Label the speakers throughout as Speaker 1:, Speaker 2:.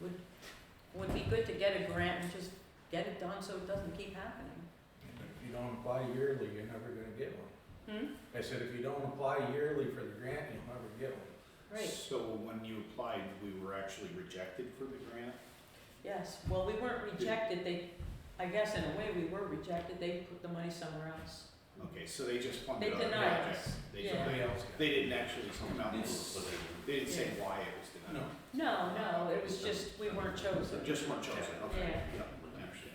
Speaker 1: would, would be good to get a grant and just get it done so it doesn't keep happening.
Speaker 2: But If you don't apply yearly, you're never gonna get one.
Speaker 1: Hmm,
Speaker 2: I said, if you don't apply yearly for the grant, you'll never get one.
Speaker 1: right,
Speaker 3: So when you applied, we were actually rejected for the grant?
Speaker 1: yes, well, we weren't rejected, they, I guess in a way we were rejected, they put the money somewhere else.
Speaker 3: Okay, so they just
Speaker 1: They
Speaker 3: funded our
Speaker 1: denied
Speaker 3: project.
Speaker 1: us,
Speaker 3: They
Speaker 1: yeah.
Speaker 3: denied-
Speaker 2: Somebody else got
Speaker 3: They
Speaker 2: it.
Speaker 3: didn't actually come out, and- they didn't say why it was denied.
Speaker 2: No.
Speaker 1: No, no, it was just, we weren't
Speaker 3: So
Speaker 1: chosen.
Speaker 3: just one chosen, okay,
Speaker 1: Yeah.
Speaker 3: yeah, actually.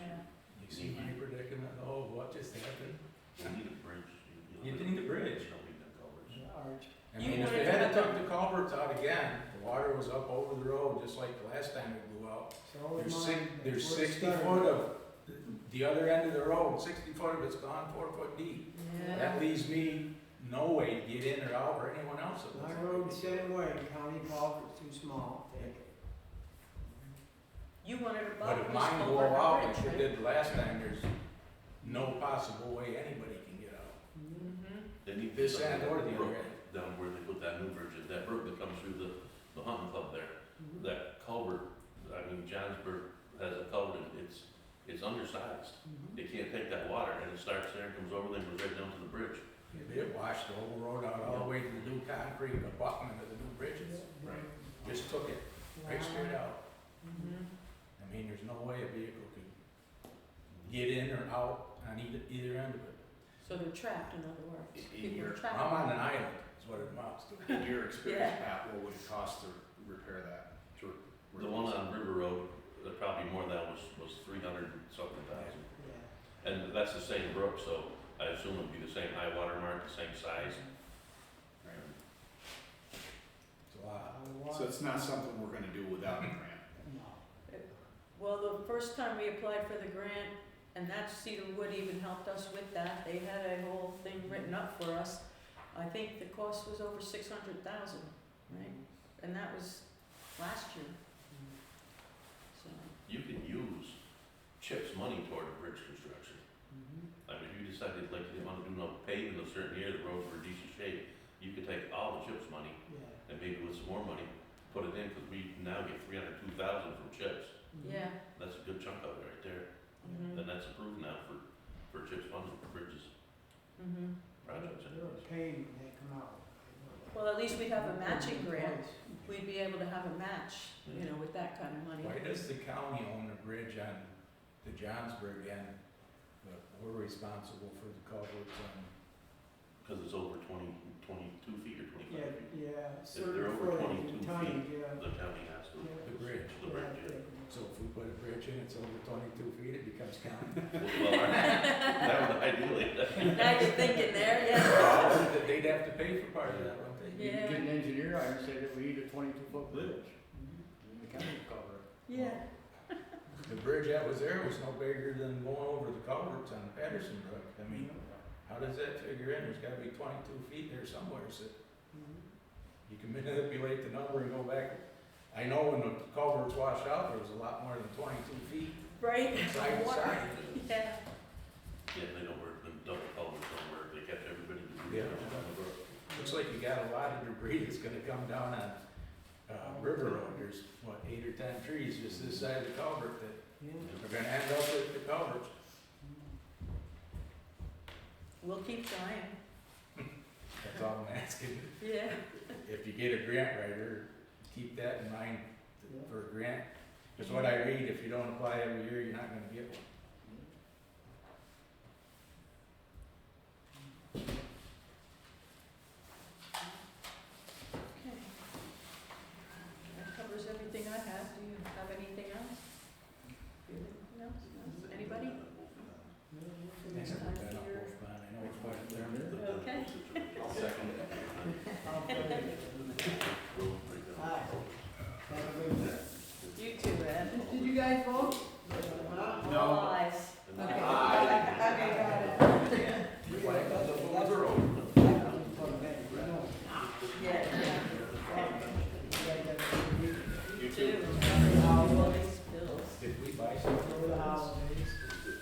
Speaker 1: Yeah.
Speaker 2: You see my predicament, oh, what just happened?
Speaker 4: You
Speaker 2: You
Speaker 4: need
Speaker 2: need
Speaker 4: a
Speaker 2: a
Speaker 4: bridge.
Speaker 2: bridge. I
Speaker 1: You
Speaker 2: mean, if
Speaker 1: wanna
Speaker 2: they had
Speaker 1: talk-
Speaker 2: took the culverts out again, the water was up over the road, just like the last time it blew out. There's six, there's sixty foot of, the other end of the road, sixty foot of it's gone four foot deep.
Speaker 1: Yeah.
Speaker 2: That leaves me no way to get in or out or anyone else. that
Speaker 5: My
Speaker 2: lives there.
Speaker 5: road same way, county culvert's too small, take it.
Speaker 1: You wanted a
Speaker 2: But
Speaker 1: bump,
Speaker 2: if
Speaker 1: just
Speaker 2: mine
Speaker 1: go
Speaker 2: go
Speaker 1: over
Speaker 2: out
Speaker 1: the
Speaker 2: like
Speaker 1: bridge,
Speaker 2: we did last time, there's no possible way anybody can get out.
Speaker 1: Mm-hmm,
Speaker 4: They need
Speaker 2: This
Speaker 4: to-
Speaker 2: end or the other
Speaker 4: brook
Speaker 2: end.
Speaker 4: Down where they put that new bridge, in, that brook that comes through the, the hunting club there, that culvert, I mean, Johnsburg has a culvert, it's, it's undersized. They can't take that water and it starts there, comes over, then goes right down to the bridge.
Speaker 2: It washed the whole road out all the way to the new concrete, the abutment of the new bridges.
Speaker 3: Right.
Speaker 2: Just took it right straight out.
Speaker 1: hmm
Speaker 2: I mean, there's no way a vehicle could get in or out on either, either end of it.
Speaker 1: so they're trapped, in other words,
Speaker 3: In- in
Speaker 1: people are
Speaker 3: your-
Speaker 1: trapped.
Speaker 2: E, I'm on an island, is what it amounts to.
Speaker 3: In your experience, Pat, what would it cost to repair that? to re-
Speaker 4: The one on River Road, uh, probably more than that was, was three hundred something thousand.
Speaker 5: Yeah.
Speaker 4: And that's the same brook, so I assume it'd be the same high water mark, the same size.
Speaker 3: Right.
Speaker 2: It's a lot.
Speaker 5: I want-
Speaker 3: So it's not something we're gonna do without a grant?
Speaker 5: No.
Speaker 1: Well, the first time we applied for the grant, and that's Cedarwood even helped us with that, they had a whole thing written up for us. I think the cost was over six hundred thousand, right, and that was last year, so,
Speaker 4: You can use CHIPS money toward bridge construction.
Speaker 1: Mm-hmm.
Speaker 5: Mhm.
Speaker 4: I mean, if you decided like you didn't want to do no paving a certain area, the roads were in decent shape, you could take all the CHIPS money
Speaker 5: Yeah.
Speaker 4: and maybe with some more money, put it in, because we now get three hundred two thousand from CHIPS.
Speaker 3: Mm-hmm.
Speaker 5: Mhm.
Speaker 1: yeah,
Speaker 4: That's a good chunk of it right there.
Speaker 1: mhm,
Speaker 4: And that's approved now for, for CHIPS funding for bridges
Speaker 1: mhm.
Speaker 4: projects
Speaker 5: They're a
Speaker 4: anyways.
Speaker 5: pain when they come out. I know that.
Speaker 1: Well, at least we'd have a matching grant,
Speaker 5: Twice.
Speaker 1: we'd be able to have a match, you know, with that kind of money.
Speaker 2: Why does the county own the bridge on the Johnsburg end, but we're responsible for the culverts on
Speaker 4: Because it's over twenty, twenty-two feet or
Speaker 5: Yeah,
Speaker 4: twenty-five feet.
Speaker 5: yeah,
Speaker 4: they're
Speaker 5: certain
Speaker 4: over
Speaker 5: footage
Speaker 4: 22
Speaker 5: and tonnage, yeah.
Speaker 4: The county has to.
Speaker 5: Yeah.
Speaker 2: The bridge.
Speaker 4: The
Speaker 5: Yeah,
Speaker 4: bridge, yeah.
Speaker 5: take them.
Speaker 2: So if we put a bridge in, it's over twenty-two feet, it becomes county.
Speaker 4: Well, well, that would ideally,
Speaker 1: Now you're thinking there, yeah.
Speaker 2: That They'd have to pay for part of that, wouldn't they?
Speaker 1: You can get an
Speaker 5: engineer out and say that we need a twenty-two foot
Speaker 3: bridge. Mm-hmm.
Speaker 5: The county cover
Speaker 1: Yeah.
Speaker 2: The bridge that was there was no bigger than going over the culverts on Patterson Brook. I mean, how does that figure in? There's gotta be twenty-two feet there somewhere, so you can manipulate the number and go back. I know when the culverts washed out, there was a lot more than twenty-two feet
Speaker 1: Right?
Speaker 2: side to
Speaker 1: Water.
Speaker 2: side.
Speaker 1: Yeah.
Speaker 4: yeah, they don't work, the double culverts don't work, they kept everybody to do
Speaker 2: Yeah.
Speaker 4: that on the road.
Speaker 2: Looks like you got a lot of debris that's gonna come down on, uh, River Road. There's, what, eight or ten trees just this side of the culvert that are gonna end up at the culvert.
Speaker 1: We'll keep trying.
Speaker 2: That's all I'm asking.
Speaker 1: Yeah.
Speaker 2: If you get a grant writer, keep that in mind for a grant. Cause what I read, if you don't apply every year, you're not gonna get one.